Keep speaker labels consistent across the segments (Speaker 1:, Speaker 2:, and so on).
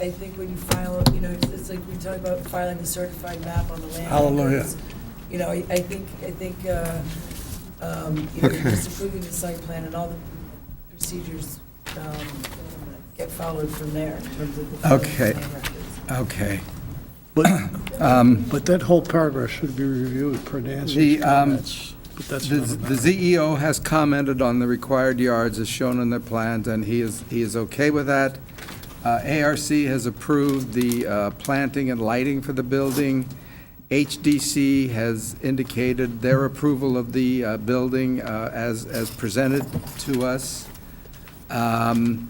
Speaker 1: I think when you file, you know, it's- it's like we talk about filing the certified map on the land.
Speaker 2: Hallelujah.
Speaker 1: records. You know, I I think, I think, uh, um, you know,
Speaker 2: Okay.
Speaker 1: just approving the site plan and all the procedures um, get followed from there in terms of the. filing of the
Speaker 2: Okay.
Speaker 1: land records.
Speaker 2: Okay.
Speaker 3: But, but that whole paragraph should be reviewed per
Speaker 2: The,
Speaker 3: Nancy's
Speaker 2: um,
Speaker 3: comments, but that's
Speaker 2: The
Speaker 3: not enough.
Speaker 2: the ZEO has commented on the required yards as shown in the plans, and he is, he is okay with that. Uh, ARC has approved the uh, planting and lighting for the building. HDC has indicated their approval of the uh, building uh, as, as presented to us. Um,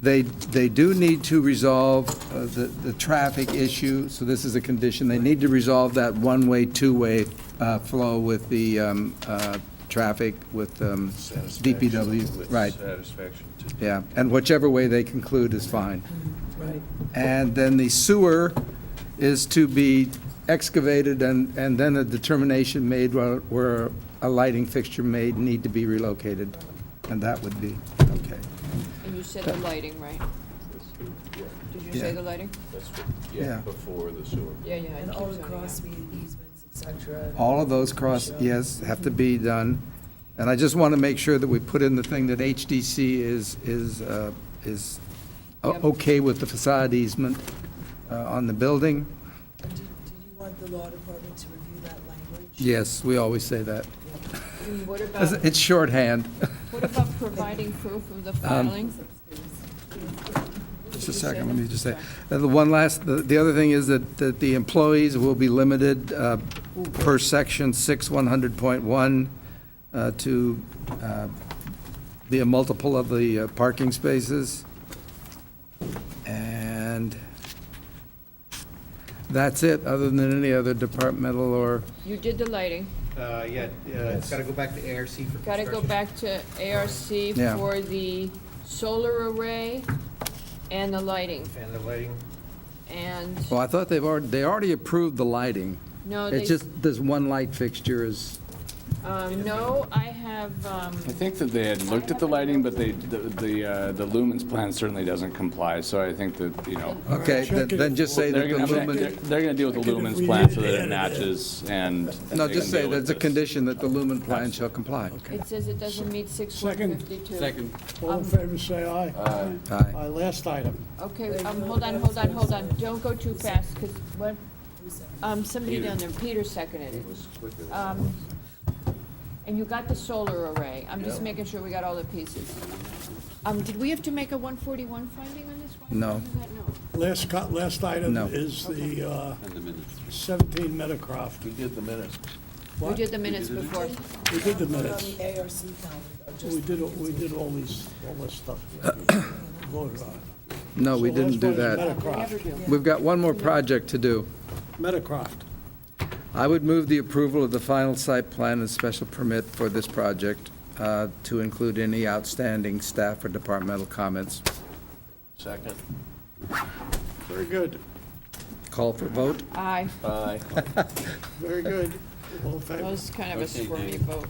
Speaker 2: They, they do need to resolve uh, the, the traffic issue, so this is a condition. They need to resolve that one-way, two-way uh, flow with the um, uh, traffic with um, DPW,
Speaker 4: With
Speaker 2: right,
Speaker 4: Satisfaction to
Speaker 2: yeah. And whichever way they conclude is fine.
Speaker 1: Right.
Speaker 2: And then the sewer is to be excavated and, and then a determination made where, where a lighting fixture may need to be relocated. And that would be, okay.
Speaker 5: And you said the lighting, right? Did you say
Speaker 2: Yeah.
Speaker 5: the lighting?
Speaker 4: That's, what-
Speaker 2: Yeah.
Speaker 4: yeah, before the sewer.
Speaker 5: Yeah, yeah. it
Speaker 1: And
Speaker 5: keeps
Speaker 1: all
Speaker 5: on,
Speaker 1: the
Speaker 5: yeah.
Speaker 1: cross easements, et cetera.
Speaker 2: All of those cross,
Speaker 1: Sure.
Speaker 2: yes, have to be done. And I just want to make sure that we put in the thing that HDC is, is, uh, is o-
Speaker 5: Yep.
Speaker 2: okay with the facade easement uh, on the building.
Speaker 1: Did did you want the law department to review that language?
Speaker 2: Yes, we always say that.
Speaker 5: And what about,
Speaker 2: It's shorthand.
Speaker 5: what about providing proof of the
Speaker 2: Um,
Speaker 5: filing?
Speaker 2: Just a second, let me just say, uh, the one last, the the other thing is that, that the employees will be limited uh, per section 6100.1 uh, to uh, be a multiple of the uh, parking spaces. And that's it, other than any other departmental or,
Speaker 5: You did the lighting.
Speaker 6: Uh, yeah, uh, it's gotta go back to ARC for construction.
Speaker 5: Got to go back to ARC
Speaker 2: Yeah.
Speaker 5: for the solar array and the lighting.
Speaker 6: And the lighting,
Speaker 5: And,
Speaker 2: well, I thought they've already, they already approved the lighting.
Speaker 5: no,
Speaker 2: It's
Speaker 5: Oh, they,
Speaker 2: just, there's one light fixture is,
Speaker 5: um, no, I have, um,
Speaker 7: I think that they had looked at the lighting, but they, the, the uh, the lumens plan certainly doesn't comply, so I think that, you know,
Speaker 2: okay, then- then just say that
Speaker 7: they're
Speaker 2: the
Speaker 7: gonna, have- they're
Speaker 2: lumen,
Speaker 7: they're gonna deal with the lumens plan so that it matches and. and
Speaker 2: no,
Speaker 7: they
Speaker 2: just
Speaker 7: can
Speaker 2: say
Speaker 7: deal with
Speaker 2: that's a
Speaker 7: this.
Speaker 2: condition that the lumen plan shall comply.
Speaker 5: it says it doesn't meet six
Speaker 3: Second.
Speaker 5: Second.
Speaker 3: All in favor, say aye.
Speaker 2: Aye.
Speaker 3: Aye, last item.
Speaker 5: Okay, um, hold on, hold on, hold on. Don't go too fast, because what,
Speaker 1: Who's that?
Speaker 5: um, somebody down there, Peter seconded it.
Speaker 4: It was quicker than that.
Speaker 5: Um, And you got the solar array. I'm just making sure we got all the pieces. Um, did we have to make a one forty-one finding on this one?
Speaker 2: No.
Speaker 3: Last, co- last item
Speaker 2: No.
Speaker 3: is the uh,
Speaker 4: In the minutes.
Speaker 3: 17 Meadowcroft.
Speaker 4: We did the minutes.
Speaker 5: We
Speaker 3: What?
Speaker 5: did the minutes before.
Speaker 3: We did the
Speaker 1: Put on the
Speaker 3: minutes.
Speaker 1: ARC calendar, or just-
Speaker 3: We did, all- we did all these, all this stuff. Voted on.
Speaker 2: No, we
Speaker 3: So last
Speaker 2: didn't do
Speaker 3: one is
Speaker 2: that.
Speaker 3: Meadowcroft.
Speaker 2: We've got one more project to do.
Speaker 3: Meadowcroft.
Speaker 2: I would move the approval of the final site plan and special permit for this project uh, to include any outstanding staff or departmental comments.
Speaker 4: Second.
Speaker 3: Very good,
Speaker 2: Call for vote?
Speaker 5: Aye.
Speaker 4: Aye.
Speaker 3: very good. All in
Speaker 5: That
Speaker 3: favor?
Speaker 5: was kind of a
Speaker 4: Okay,
Speaker 5: squirmy
Speaker 4: Dave.
Speaker 5: vote.